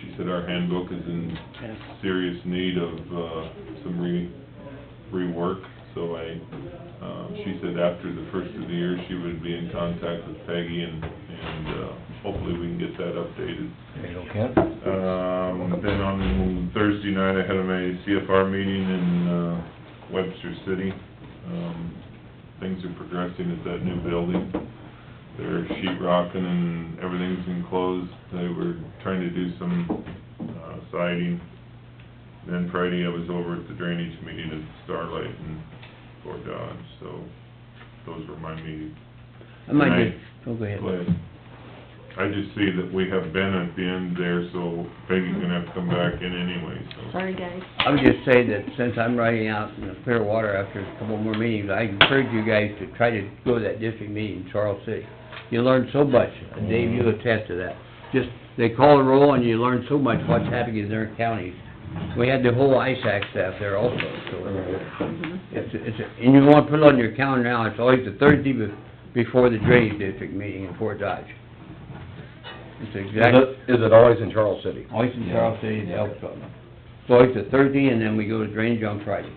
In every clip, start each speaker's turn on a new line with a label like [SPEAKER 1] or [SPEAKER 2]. [SPEAKER 1] she said our handbook is in serious need of, uh, some re, rework, so I, um, she said after the first of the year, she would be in contact with Peggy and, and, uh, hopefully we can get that updated.
[SPEAKER 2] There you go, Kent.
[SPEAKER 1] Um, then on Thursday night, I had my CFR meeting in, uh, Webster City. Um, things are progressing at that new building. They're sheet rocking and everything's enclosed. They were trying to do some, uh, siding. Then Friday, I was over at the drainage meeting at Starlight and Fort Dodge, so those were my meetings.
[SPEAKER 3] I might
[SPEAKER 1] Right.
[SPEAKER 3] be, oh, go ahead.
[SPEAKER 1] But I just see that we have Ben at the end there, so Peggy's gonna have to come back in anyway, so.
[SPEAKER 4] Sorry, guys.
[SPEAKER 3] I would just say that since I'm riding out in the fair water after a couple more meetings, I encourage you guys to try to go to that district meeting in Charles City. You learn so much, and Dave, you attest to that. Just, they call a roll and you learn so much what's happening in their counties. We had the whole ISAC staff there also, so. It's, it's, and you wanna put it on your calendar now, it's always the Thursday be- before the drainage district meeting in Fort Dodge. It's
[SPEAKER 2] Is
[SPEAKER 3] exactly.
[SPEAKER 2] it, is it always in Charles City?
[SPEAKER 3] Always in
[SPEAKER 2] Yeah.
[SPEAKER 3] Charles City, it
[SPEAKER 2] Yeah.
[SPEAKER 3] helps something. It's always a Thursday, and then we go to drainage on Friday.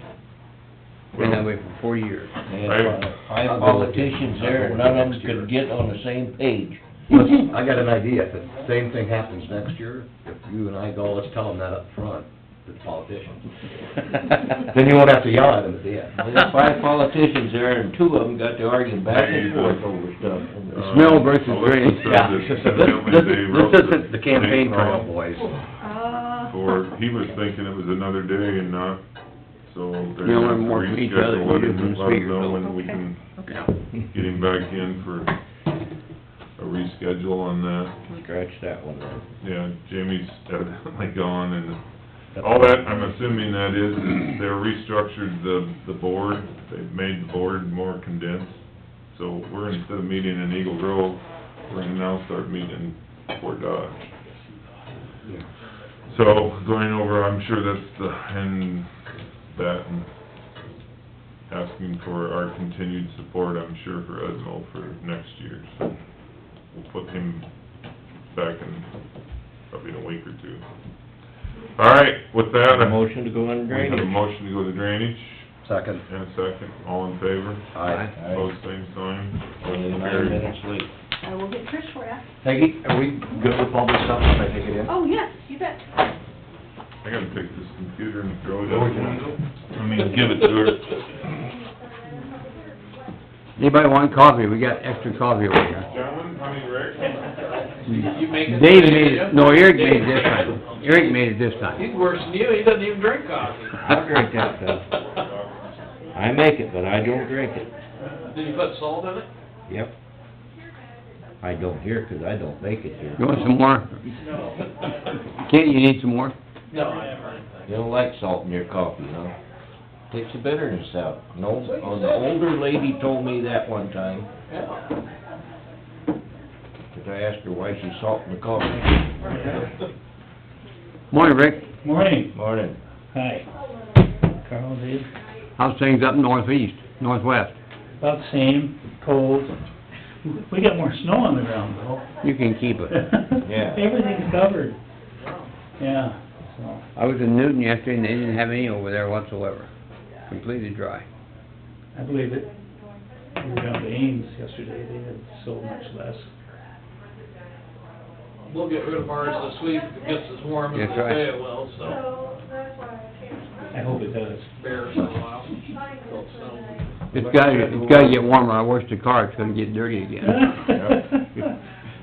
[SPEAKER 3] Been that
[SPEAKER 1] Well-
[SPEAKER 3] way for four years.
[SPEAKER 2] And
[SPEAKER 5] uh, Five politicians there, and none of them could get on the same page.
[SPEAKER 2] Listen, I got an idea, if the same thing happens next year, if you and I go, let's tell them that up front, the politicians. Then you won't have to yell at them at the end.
[SPEAKER 5] Well, there's five politicians there, and two of them got to arguing back and forth over
[SPEAKER 1] Uh,
[SPEAKER 5] stuff.
[SPEAKER 2] Smell versus
[SPEAKER 1] Melissa
[SPEAKER 2] green.
[SPEAKER 1] said
[SPEAKER 2] Yeah.
[SPEAKER 1] that evidently
[SPEAKER 2] This-
[SPEAKER 1] they
[SPEAKER 2] this
[SPEAKER 1] wrote
[SPEAKER 2] isn't the campaign
[SPEAKER 1] date
[SPEAKER 2] for all
[SPEAKER 1] wrong,
[SPEAKER 2] boys.
[SPEAKER 6] Uh,
[SPEAKER 1] Or he was thinking it was another day and not, so they're
[SPEAKER 3] You know,
[SPEAKER 1] gonna
[SPEAKER 3] we're more for each other,
[SPEAKER 1] reschedule it
[SPEAKER 3] we
[SPEAKER 1] and
[SPEAKER 3] didn't
[SPEAKER 1] let us
[SPEAKER 3] speak,
[SPEAKER 1] know
[SPEAKER 3] so-
[SPEAKER 1] when we can get him back in for a reschedule on that.
[SPEAKER 2] Scratch that one, then.
[SPEAKER 1] Yeah, Jamie's evidently gone and All that, I'm assuming that is, is they're restructured the, the board, they've made the board more condensed. So we're, instead of meeting in Eagle Grove, we're gonna now start meeting in Fort Dodge. So going over, I'm sure that's the, and that, and asking for our continued support, I'm sure, for Edmo for next year. So we'll put him back in probably in a week or two. All right, with that, I
[SPEAKER 5] Motion to go on
[SPEAKER 1] we have a
[SPEAKER 5] drainage.
[SPEAKER 1] motion to go to drainage,
[SPEAKER 2] Second.
[SPEAKER 1] and a second, all in favor,
[SPEAKER 2] Aye.
[SPEAKER 1] pose same sign.
[SPEAKER 5] Only nine minutes late.
[SPEAKER 6] I will get Trish for you.
[SPEAKER 2] Peggy, are we good with all this stuff, if I take it in?
[SPEAKER 6] Oh, yes, you bet.
[SPEAKER 1] I gotta take this computer and throw it out the window. I mean, give it to her.
[SPEAKER 3] Anybody want coffee? We got extra coffee over here.
[SPEAKER 1] Gentlemen, I mean, Rick,
[SPEAKER 5] You make it-
[SPEAKER 3] Dave made it, no, Eric made it this time. Eric made it this time.
[SPEAKER 7] He's worse than you, he doesn't even drink coffee.
[SPEAKER 5] I'll drink that stuff. I make it, but I don't drink it.
[SPEAKER 7] Did you put salt in it?
[SPEAKER 5] Yep. I don't hear, 'cause I don't make it here.
[SPEAKER 3] You want some more?
[SPEAKER 7] No.
[SPEAKER 3] Kent, you need some more?
[SPEAKER 7] No, I haven't.
[SPEAKER 5] You don't like salt in your coffee, huh? Takes the bitterness out. No, oh, the older lady told me that one time,
[SPEAKER 7] Yeah.
[SPEAKER 5] 'cause I asked her why she's salting the coffee.
[SPEAKER 3] Morning, Rick.
[SPEAKER 8] Morning.
[SPEAKER 5] Morning.
[SPEAKER 8] Hi. Carl, Dave.
[SPEAKER 3] How's things up northeast, northwest?
[SPEAKER 8] About the same, cold. We got more snow on the ground though.
[SPEAKER 3] You can keep it.
[SPEAKER 5] Yeah.
[SPEAKER 8] Everything's covered. Yeah, so.
[SPEAKER 3] I was in Newton yesterday, and they didn't have any over there whatsoever. Completely dry.
[SPEAKER 8] I believe it. We were down to Ames yesterday, they had so much less.
[SPEAKER 7] We'll get rid of ours this week, if it gets as warm as
[SPEAKER 3] That's
[SPEAKER 7] they
[SPEAKER 3] right.
[SPEAKER 7] say it will, so,
[SPEAKER 8] I hope it does.
[SPEAKER 7] bear for a while. Don't snow.
[SPEAKER 3] It's gotta, it's gotta get warmer. I washed the car, it's gonna get dirty again.
[SPEAKER 5] Well,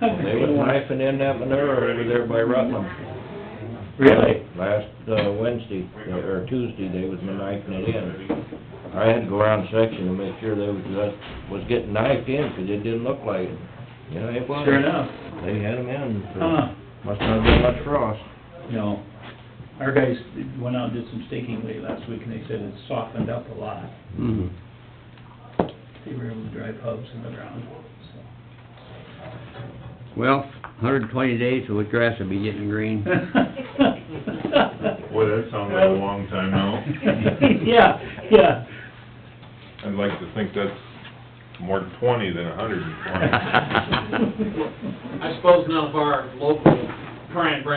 [SPEAKER 5] They was knifing in that manure over there by Rutland.
[SPEAKER 8] Really?
[SPEAKER 5] Last, uh, Wednesday, or Tuesday, they was knifing it in. I had to go around section to make sure they was, that was getting knifed in, 'cause it didn't look like it. You know, it was.
[SPEAKER 8] Sure enough.
[SPEAKER 5] They had them in, so
[SPEAKER 8] Huh,
[SPEAKER 5] must not have been much frost.
[SPEAKER 8] no. Our guys went out and did some staking late last week and they said it softened up a lot.
[SPEAKER 3] Mhm.
[SPEAKER 8] They were able to drive hubs in the ground, so.
[SPEAKER 3] Well, hundred and twenty days, so the grass will be getting green.
[SPEAKER 1] boy, that sounds like a long time out.
[SPEAKER 8] Yeah, yeah.
[SPEAKER 1] I'd like to think that's more twenty than a hundred and twenty.
[SPEAKER 7] I suppose none of our local, try and bring